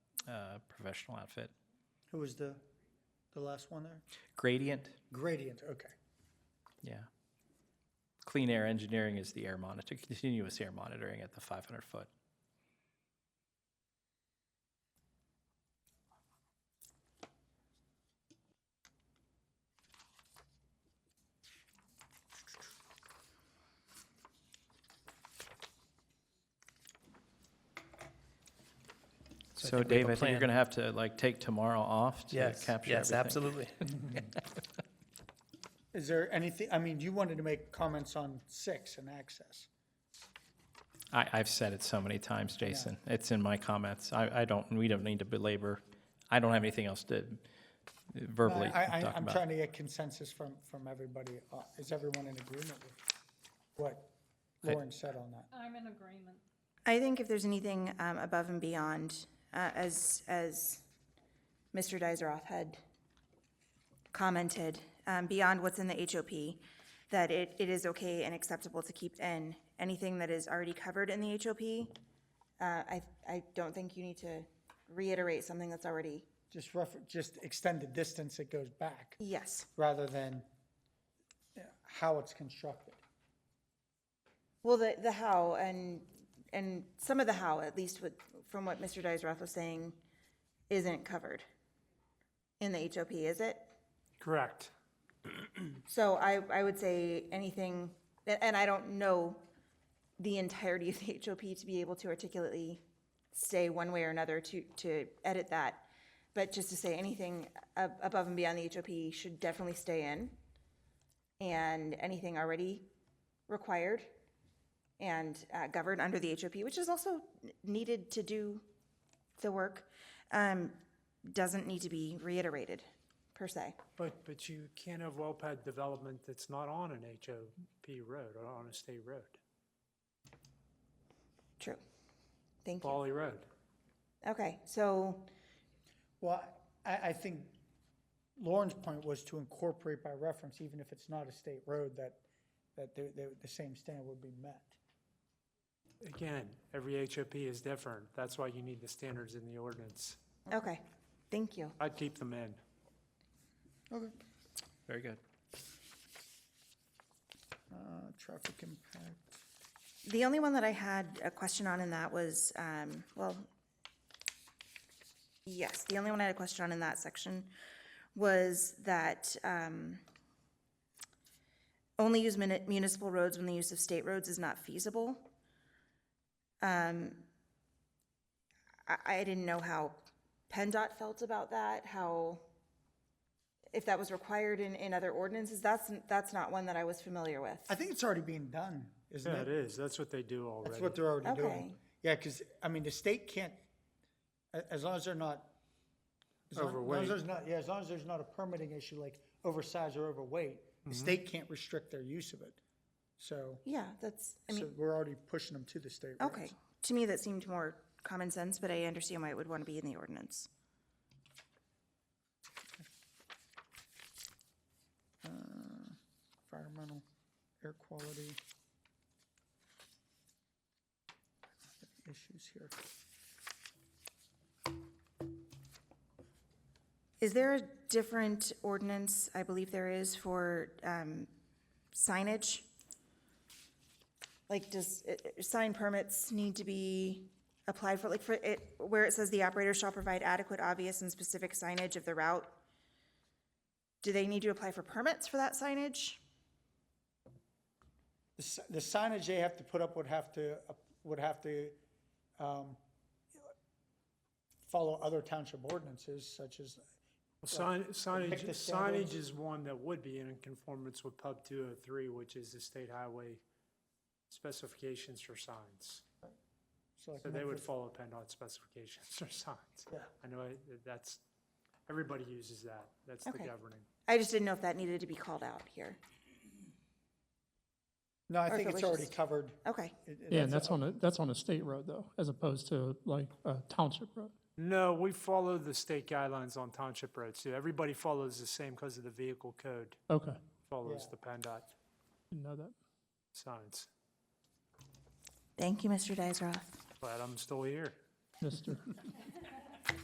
uh, professional outfit. Who was the, the last one there? Gradient, Gradient, okay. yeah. Clean Air Engineering is the air monitor, continuous air monitoring at the 500 foot. So I So think we have Dave, a I think you're plan. going to have to like take tomorrow off to Yes, capture yes, everything. absolutely. Is there anything, I mean, you wanted to make comments on six and access. I, I've said it so many times, Jason. It's in my comments. I, I don't, we don't need to belabor. I don't have anything else to verbally I, I, talk I'm about. trying to get consensus from, from everybody. Uh, Is everyone in agreement with what Lauren said on that? I'm in agreement. I think if there's anything um, above and beyond, uh, as, as Mr. Dizeroff had commented, um, beyond what's in the HOP, that it, it is okay and acceptable to keep in. Anything that is already covered in the HOP, uh, I, I don't think you need to reiterate something that's already, Just refer, just extend the distance it goes back yes. rather than uh, how it's constructed. Well, the, the how, and, and some of the how, at least with, from what Mr. Dizeroff was saying, isn't covered in the HOP, is it? Correct. So I, I would say anything, a- and I don't know the entirety of the HOP to be able to articulately say one way or another to, to edit that. But just to say anything ab- above and beyond the HOP should definitely stay in. And anything already required and uh, governed under the HOP, which is also n- needed to do the work, um, doesn't need to be reiterated, per se. But, but you can't have well pad development that's not on an HOP road or on a state road, True. Thank you. Wally Road. Okay, so, Well, I, I think Lauren's point was to incorporate by reference, even if it's not a state road, that, that the, the, the same standard would be met. Again, every HOP is different. That's why you need the standards in the ordinance. okay, thank you. I'd keep them in. Very good. Uh, traffic impact. The only one that I had a question on in that was, um, well, yes, the only one I had a question on in that section was that, um, only use muni- municipal roads when the use of state roads is not feasible. Um, I, I didn't know how PennDOT felt about that, how, if that was required in, in other ordinances, that's, that's not one that I was familiar with. I think it's already being done, isn't Yeah, it it? is. That's what they do already. That's what they're already doing. Okay. Yeah, because, I mean, the state can't, a- as long as they're not. as long- as long as Overweight. there's not- Yeah, as long as there's not a permitting issue like oversized or overweight, Mm-hmm. the state can't restrict their use of it. So, Yeah, that's, I mean. so we're already pushing them to the state roads. Okay, to me, that seemed more common sense, but I understand why it would want to be in the ordinance. Uh, environmental, air quality. Issues here. Is there a different ordinance, I believe there is, for um, signage? Like, does, uh, uh, sign permits need to be applied for, like, for it, where it says the operator shall provide adequate, obvious, and specific signage of the route? Do they need to apply for permits for that signage? The si- The signage they have to put up would have to, would have to um, follow other township ordinances such as, Well, sign- pick Signage, the standards. signage is one that would be in conformance with Pub 203, which is the state highway specifications for signs. so like So they would follow PennDOT specifications for signs. Yeah. I know I- that's, everybody uses that. That's the Okay. governing. I just didn't know if that needed to be called out here. No, I or if think it it's was already just- covered. Okay, It- it- Yeah, and that's on a, that's on a state road though, as opposed to like a township road. No, we follow the state guidelines on township roads too. Everybody follows the same because of the vehicle code Okay, follows Yeah. the PennDOT didn't know that. signs. thank you, Mr. Dizeroff. Glad I'm still here. Mister,